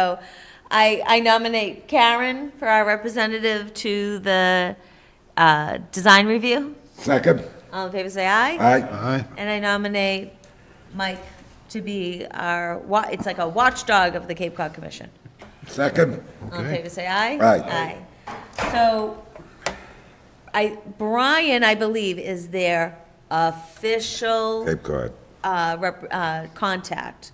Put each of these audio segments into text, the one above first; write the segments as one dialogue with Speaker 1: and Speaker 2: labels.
Speaker 1: So I, I nominate Karen for our representative to the uh, design review.
Speaker 2: Second.
Speaker 1: All in favor, say aye.
Speaker 2: Aye.
Speaker 3: Aye.
Speaker 1: And I nominate Mike to be our, wa- it's like a watchdog of the Cape Cod Commission.
Speaker 2: Second.
Speaker 1: All in
Speaker 3: Okay.
Speaker 1: favor, say aye.
Speaker 2: Aye.
Speaker 1: Aye. So I, Brian, I believe, is their official
Speaker 2: Cape Cod.
Speaker 1: uh, rep- uh, contact,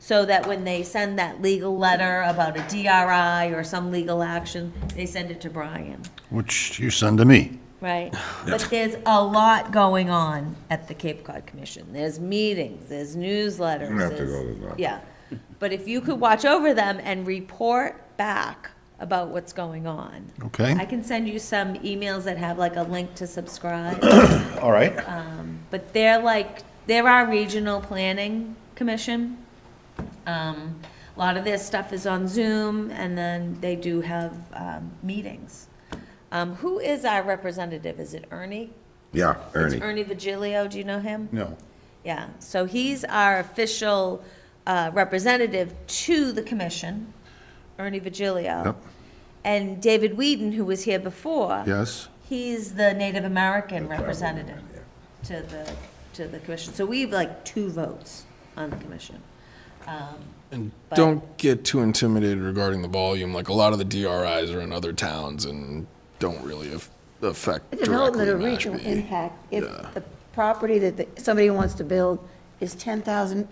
Speaker 1: so that when they send that legal letter about a DRI or some legal action, they send it to Brian,
Speaker 3: Which you send to me.
Speaker 1: right? But there's a lot going on at the Cape Cod Commission. There's meetings, there's newsletters.
Speaker 2: You don't have to
Speaker 1: there's-
Speaker 2: go to that.
Speaker 1: Yeah, but if you could watch over them and report back about what's going on.
Speaker 3: Okay.
Speaker 1: I can send you some emails that have like a link to subscribe.
Speaker 3: All right.
Speaker 1: But they're like, they're our regional planning commission. Um, a lot of their stuff is on Zoom, and then they do have, um, meetings. Um, who is our representative? Is it Ernie?
Speaker 2: Yeah,
Speaker 1: It's
Speaker 2: Ernie.
Speaker 1: Ernie Vigilio, do you know him?
Speaker 3: No.
Speaker 1: Yeah, so he's our official, uh, representative to the commission, Ernie Vigilio.
Speaker 3: Yep.
Speaker 1: And David Whedon, who was here before.
Speaker 3: Yes.
Speaker 1: He's the Native American representative to the, to the commission. So we have like two votes on the commission.
Speaker 4: And don't get too intimidated regarding the volume. Like a lot of the DRIs are in other towns and don't really af- affect
Speaker 5: The
Speaker 4: directly
Speaker 5: Development of regional
Speaker 4: Mashpee.
Speaker 5: impact, if the property that the- somebody wants to build is 10,000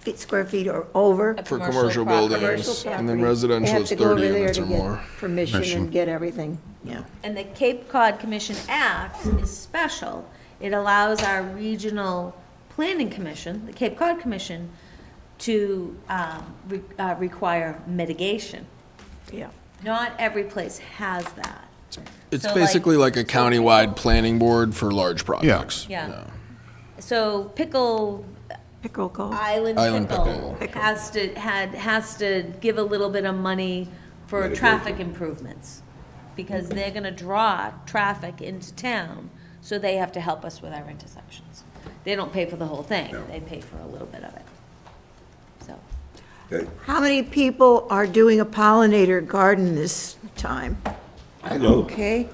Speaker 5: feet, square feet or over.
Speaker 4: For
Speaker 1: Commercial
Speaker 4: commercial
Speaker 1: property.
Speaker 4: buildings, and then
Speaker 5: property,
Speaker 4: residential is thirty units or
Speaker 5: They have to go over there
Speaker 4: more.
Speaker 5: to get permission and get everything, yeah.
Speaker 1: And the Cape Cod Commission Act is special. It allows our regional planning commission, the Cape Cod Commission, to um, re- uh, require mitigation.
Speaker 5: Yeah.
Speaker 1: Not every place has that.
Speaker 4: It's
Speaker 1: So, like-
Speaker 4: basically like a countywide planning board for large projects.
Speaker 1: Yeah.
Speaker 4: No.
Speaker 1: So pickle
Speaker 5: Pickle call.
Speaker 1: Island
Speaker 4: Island
Speaker 1: Pickle
Speaker 4: Pickle.
Speaker 1: has to, had, has to give a little bit of money for traffic improvements, because they're gonna draw traffic into town, so they have to help us with our intersections. They don't pay for the whole thing, they pay for a little bit of it. So,
Speaker 5: How many people are doing a pollinator garden this time?
Speaker 2: I know.
Speaker 5: Okay?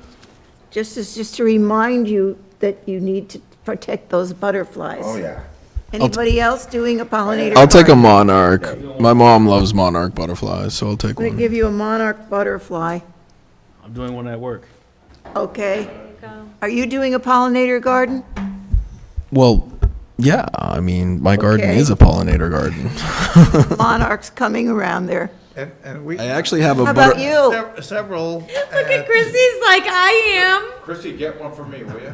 Speaker 5: Just as, just to remind you that you need to protect those butterflies.
Speaker 2: Oh, yeah.
Speaker 5: Anybody else doing a pollinator?
Speaker 4: I'll take a
Speaker 5: garden?
Speaker 4: monarch. My mom loves monarch butterflies, so I'll take
Speaker 5: I'm gonna
Speaker 4: one.
Speaker 5: give you a monarch butterfly,
Speaker 6: I'm doing one at work.
Speaker 5: okay? Are you doing a pollinator garden?
Speaker 4: Well, yeah, I mean, my garden
Speaker 5: Okay.
Speaker 4: is a pollinator garden.
Speaker 5: Monarchs coming around there.
Speaker 7: And, and we,
Speaker 4: I actually have a
Speaker 5: How
Speaker 4: butter-
Speaker 5: about you?
Speaker 7: sev- several.
Speaker 1: look at Chrissy's like, I am.
Speaker 7: Chrissy, get one for me, will you?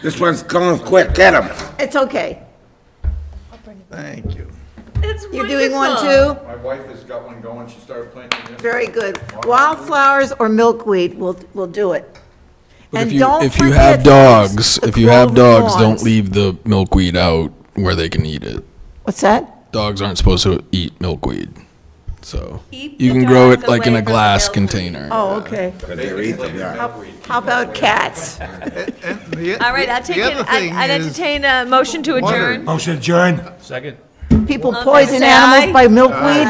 Speaker 2: This one's gone quick. Get him.
Speaker 5: It's okay.
Speaker 7: Thank you.
Speaker 1: It's
Speaker 5: You're doing one
Speaker 1: wonderful.
Speaker 5: too?
Speaker 7: My wife has got one going, she started planting this.
Speaker 5: Very good. Wildflowers or milkweed will, will do it.
Speaker 4: But
Speaker 5: And
Speaker 4: if you
Speaker 5: don't
Speaker 4: if you
Speaker 5: forget
Speaker 4: have dogs,
Speaker 5: the
Speaker 4: if you have
Speaker 5: clover
Speaker 4: dogs, don't
Speaker 5: lawns.
Speaker 4: leave the milkweed out where they can eat it.
Speaker 5: What's that?
Speaker 4: Dogs aren't supposed to eat milkweed, so
Speaker 1: Keep
Speaker 4: you
Speaker 1: the
Speaker 4: can grow
Speaker 1: dogs
Speaker 4: it like in
Speaker 1: away
Speaker 4: a
Speaker 1: from the
Speaker 4: glass
Speaker 1: milkweed.
Speaker 4: container.
Speaker 5: Oh, okay.
Speaker 2: But they're eating, yeah.
Speaker 5: How about cats?
Speaker 1: All right, I'll take it, I- I'd entertain a motion to adjourn.
Speaker 2: Motion adjourned.
Speaker 6: Second.
Speaker 5: People
Speaker 1: Okay,
Speaker 5: poison
Speaker 1: say aye.
Speaker 4: Uh,
Speaker 5: animals by milkweed?